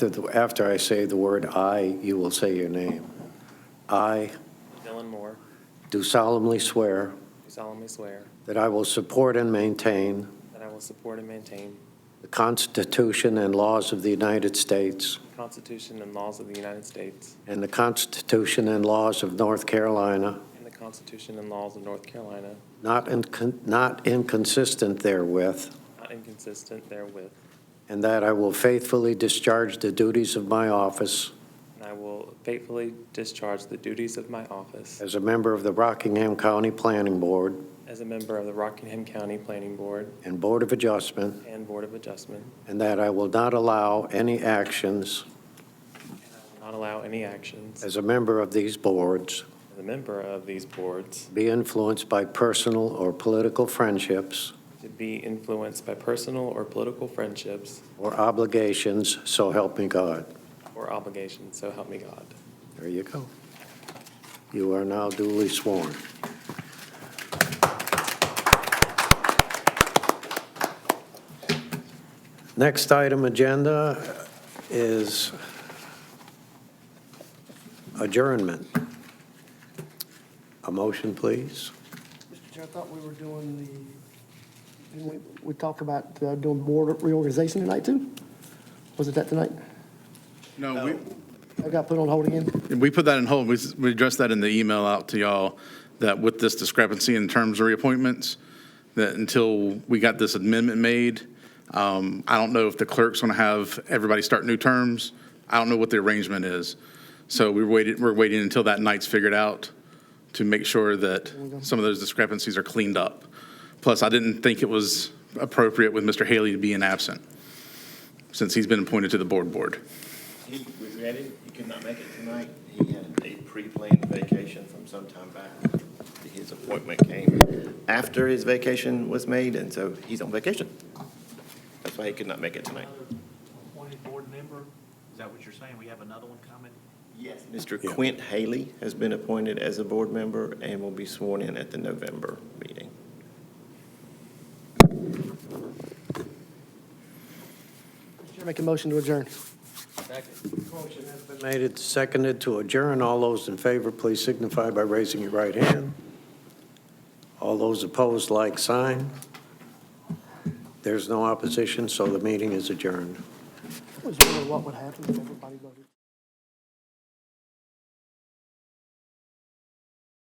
that the- after I say the word "I," you will say your name. I Dylan Moore, do solemnly swear do solemnly swear that I will support and maintain that I will support and maintain the Constitution and laws of the United States the Constitution and laws of the United States and the Constitution and laws of North Carolina, and the Constitution and laws of North Carolina, not incon- not inconsistent therewith, not inconsistent therewith, and that I will faithfully discharge the duties of my office and I will faithfully discharge the duties of my office as a member of the Rockingham County Planning Board as a member of the Rockingham County Planning Board and Board of Adjustment and Board of Adjustment, And that I will not allow any actions and I will not allow any actions as as a member of these boards a member of these boards be influenced by personal or political friendships to be influenced by personal or political friendships or obligations, so help me God. or obligations, so help me God. There you go. You are now duly sworn. Next item agenda is adjournment. A motion, please. Mr. Chair, I thought we were doing the, didn't we, we talk about uh, doing board reorganization tonight too? Was it that tonight? No, I got put on hold again? Oh. we, we put that in hold. We, s- we addressed that in the email out to y'all, that with this discrepancy in terms of reappointments, that until we got this amendment made, um, I don't know if the clerk's gonna have everybody start new terms. I don't know what the arrangement is. So we waited, we're waiting until that night's figured out to make sure that some of those discrepancies are cleaned up. Plus, I didn't think it was appropriate with Mr. Haley being absent, since he's been appointed to the board board. He regretted he could not make it tonight. He had a pre-planned vacation from some time back. His appointment came after his vacation was made, and so he's on vacation. That's why he could not make it tonight. appointed board member? Is that what you're saying? We have another one coming? Yes. Mr. Quint Haley has been appointed as a board member and will be sworn in at the November meeting. Mr. Chair, make a motion to adjourn. Motion has been made and seconded to adjourn. All those in favor, please signify by raising your right hand. All those opposed, like sign. There's no opposition, so the meeting is adjourned. I was wondering what would happen if everybody voted.